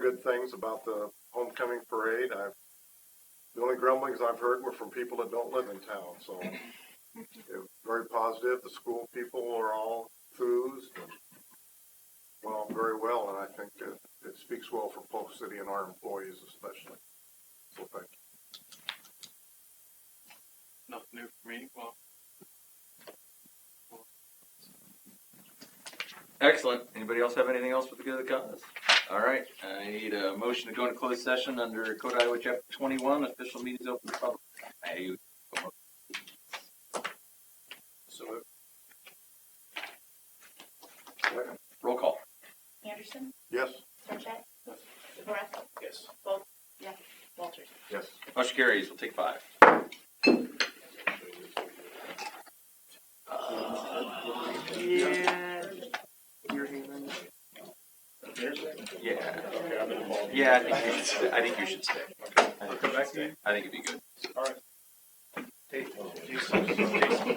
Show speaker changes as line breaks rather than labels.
good things about the homecoming parade. I've, the only grumblings I've heard were from people that don't live in town, so it was very positive. The school people are all enthused and, well, very well, and I think it, it speaks well for Polk City and our employees especially. So thank you.
Nothing new for me. Well,
Excellent. Anybody else have anything else for the good of the cause? All right, I need a motion to go into closed session under Code Iowa Chapter twenty-one, official meetings open to public. I,
so
roll call.
Anderson,
Yes?
Sarchet,
Yes.
DeBorak,
yes.
Walters.
Yes.
Motion carries. We'll take five.
Yeah.
Yeah,
Okay, I'm involved.
yeah, I think you should, stay. I think you should stay.
I'll come back to you.
I think it'd be good.
Hey, Jesus.